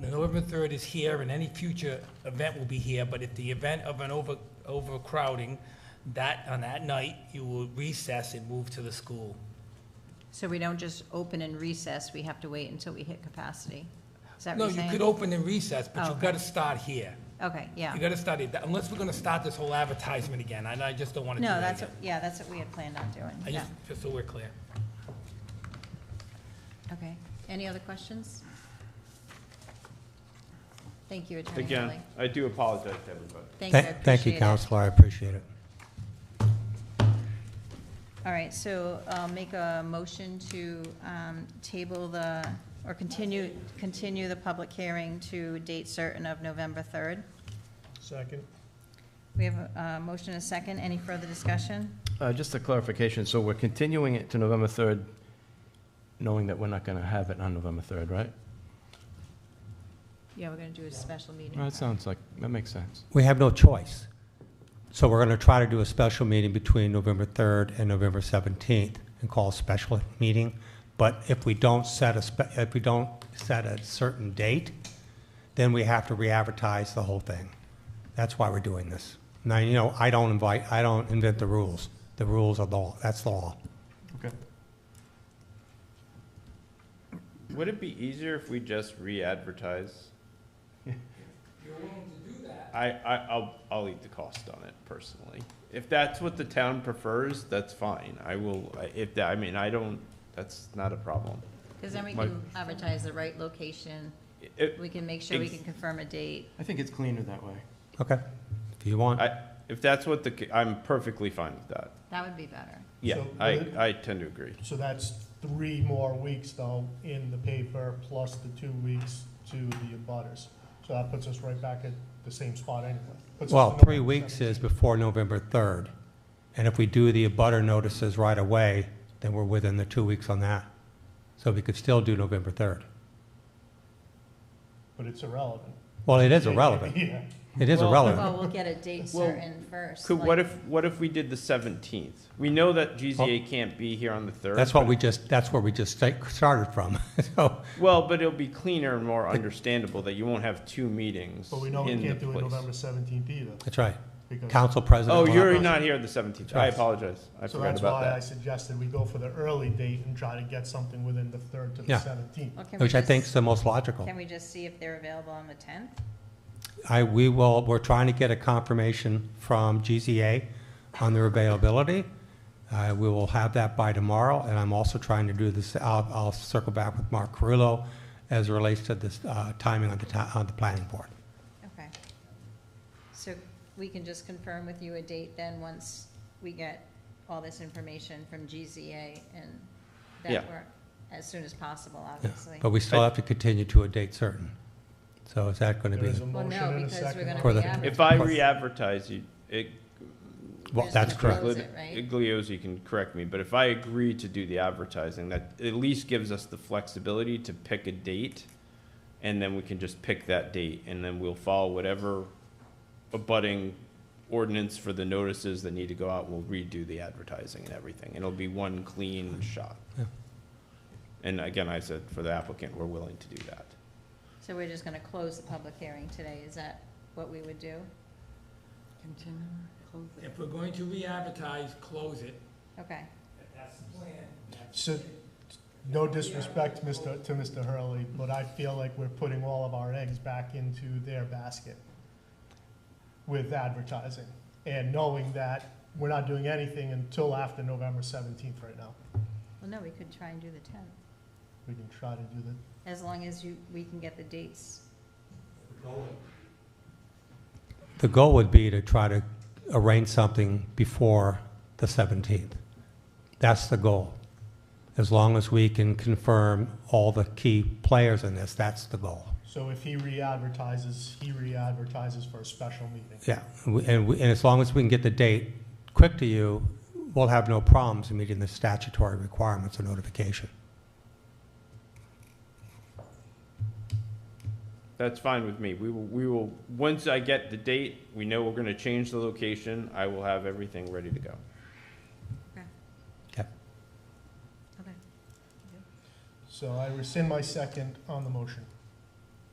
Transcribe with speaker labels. Speaker 1: The November 3rd is here, and any future event will be here, but if the event of an over overcrowding, that, on that night, you will recess and move to the school.
Speaker 2: So we don't just open and recess, we have to wait until we hit capacity? Is that
Speaker 1: No,
Speaker 2: what you're
Speaker 1: you
Speaker 2: saying?
Speaker 1: could open and recess, but
Speaker 2: Oh.
Speaker 1: you've got to start here.
Speaker 2: Okay, yeah.
Speaker 1: You got to start it, unless we're going to start this whole advertisement again, and I just don't want to do
Speaker 2: No,
Speaker 1: that
Speaker 2: that's,
Speaker 1: again.
Speaker 2: what- yeah, that's what we had planned on doing,
Speaker 1: I
Speaker 2: yeah.
Speaker 1: just, just so we're clear.
Speaker 2: Okay, any other questions? Thank you, Attorney
Speaker 3: Again,
Speaker 2: Kelly.
Speaker 3: I do apologize to everybody.
Speaker 2: Thanks, I
Speaker 4: Thank thank you,
Speaker 2: appreciate it.
Speaker 4: Counselor, I appreciate it.
Speaker 2: All right, so I'll make a motion to um, table the, or continue, continue the public hearing to date certain of November 3rd.
Speaker 5: Second.
Speaker 2: We have a a motion and a second, any further discussion?
Speaker 3: Uh, Just a clarification, so we're continuing it to November 3rd, knowing that we're not going to have it on November 3rd, right?
Speaker 2: Yeah, we're going to do a special meeting.
Speaker 3: That sounds like, that makes sense.
Speaker 4: We have no choice. So we're going to try to do a special meeting between November 3rd and November 17th and call a special meeting. But if we don't set a, spe- if we don't set a certain date, then we have to re-advertise the whole thing. That's why we're doing this. Now, you know, I don't invite, I don't invent the rules. The rules are law, that's law.
Speaker 3: Okay. Would it be easier if we just re-advertise?
Speaker 1: You're willing to do that?
Speaker 3: I, I, I'll, I'll eat the cost on it personally. If that's what the town prefers, that's fine. I will, I- if, that I mean, I don't, that's not a problem.
Speaker 2: Because then we
Speaker 3: My-
Speaker 2: can advertise the right location,
Speaker 3: It,
Speaker 2: we can make sure we
Speaker 3: Ex-
Speaker 2: can confirm a date.
Speaker 3: I think it's cleaner that way.
Speaker 4: Okay? If you want.
Speaker 3: I, if that's what the, ca- I'm perfectly fine with that.
Speaker 2: That would be better.
Speaker 3: Yeah,
Speaker 5: So
Speaker 3: I,
Speaker 5: will it-
Speaker 3: I tend to agree.
Speaker 5: So that's three more weeks though in the paper, plus the two weeks to the abutters. So that puts us right back at the same spot anyway. Puts us
Speaker 4: Well,
Speaker 5: to
Speaker 4: three
Speaker 5: November
Speaker 4: weeks is
Speaker 5: 17th.
Speaker 4: before November 3rd. And if we do the abutter notices right away, then we're within the two weeks on that. So we could still do November 3rd.
Speaker 5: But it's irrelevant.
Speaker 4: Well, it is irrelevant.
Speaker 5: Yeah.
Speaker 4: It is
Speaker 3: Well-
Speaker 4: irrelevant.
Speaker 2: Well, we'll get a date
Speaker 3: Well,
Speaker 2: certain first.
Speaker 3: Could,
Speaker 2: like-
Speaker 3: what if, what if we did the seventeenth? We know that GZA can't be here on the third.
Speaker 4: That's what we just, that's where we just sta- started from. So,
Speaker 3: Well, but it'll be cleaner and more understandable that you won't have two meetings
Speaker 5: But we know we
Speaker 3: in the
Speaker 5: can't do it
Speaker 3: place.
Speaker 5: November seventeenth either,
Speaker 4: that's right.
Speaker 5: because.
Speaker 4: Council President.
Speaker 3: Oh,
Speaker 4: will-
Speaker 3: you're not here the seventeenth. I
Speaker 4: Right.
Speaker 3: apologize. I
Speaker 5: So
Speaker 3: forgot
Speaker 5: that's
Speaker 3: about
Speaker 5: why I
Speaker 3: that.
Speaker 5: suggested we go for the early date and try to get something within the third to the
Speaker 4: Yeah.
Speaker 5: seventeenth.
Speaker 2: Or can we
Speaker 4: Which I
Speaker 2: just-
Speaker 4: think is the most logical.
Speaker 2: Can we just see if they're available on the 10th?
Speaker 4: I, we will, we're trying to get a confirmation from GZA on their availability. Uh, we will have that by tomorrow, and I'm also trying to do this, I'll, I'll circle back with Mark Carullo as it relates to this, uh, timing on the, ti- on the planning board.
Speaker 2: Okay. So we can just confirm with you a date then, once we get all this information from GZA and that
Speaker 3: Yeah.
Speaker 2: work, as soon as possible,
Speaker 4: Yeah. Oh.
Speaker 2: obviously.
Speaker 4: But we still have to continue to a date certain. So is that gonna
Speaker 5: There
Speaker 4: be,
Speaker 5: is a
Speaker 2: Well,
Speaker 5: motion
Speaker 2: no,
Speaker 5: and a
Speaker 2: because we're
Speaker 5: second.
Speaker 2: gonna
Speaker 4: For the-
Speaker 2: re-advertise.
Speaker 3: If I re-advertise you, it,
Speaker 4: well,
Speaker 2: There's
Speaker 4: that's
Speaker 2: no
Speaker 4: correct.
Speaker 2: Close it, right?
Speaker 3: Igliozzi can correct me, but if I agree to do the advertising, that at least gives us the flexibility to pick a date. And then we can just pick that date and then we'll follow whatever abutting ordinance for the notices that need to go out. We'll redo the advertising and everything. It'll be one clean shot.
Speaker 4: Yeah.
Speaker 3: And again, I said, for the applicant, we're willing to do that.
Speaker 2: So we're just going to close the public hearing today, is that what we would do? Continue, close
Speaker 1: If we're going to re-advertise, close it.
Speaker 2: Okay.
Speaker 1: That's the plan.
Speaker 5: So, no disrespect, Mr., to Mr. Hurley, but I feel like we're putting all of our eggs back into their basket with advertising, and knowing that we're not doing anything until after November seventeenth right now.
Speaker 2: Well, no, we could try and do the 10th,
Speaker 5: We can try to do that.
Speaker 2: as long as you, we can get the dates.
Speaker 4: The goal would be to try to arrange something before the 17th. That's the goal. As long as we can confirm all the key players in this, that's the goal.
Speaker 5: So if he re-advertises, he re-advertises for a special meeting.
Speaker 4: Yeah, and we- and, we- and as long as we can get the date quick to you, we'll have no problems in meeting the statutory requirements of notification.
Speaker 3: That's fine with me. We will, we will, once I get the date, we know we're gonna change the location, I will have everything ready to go.
Speaker 2: Okay.
Speaker 5: So I rescind my second on the motion.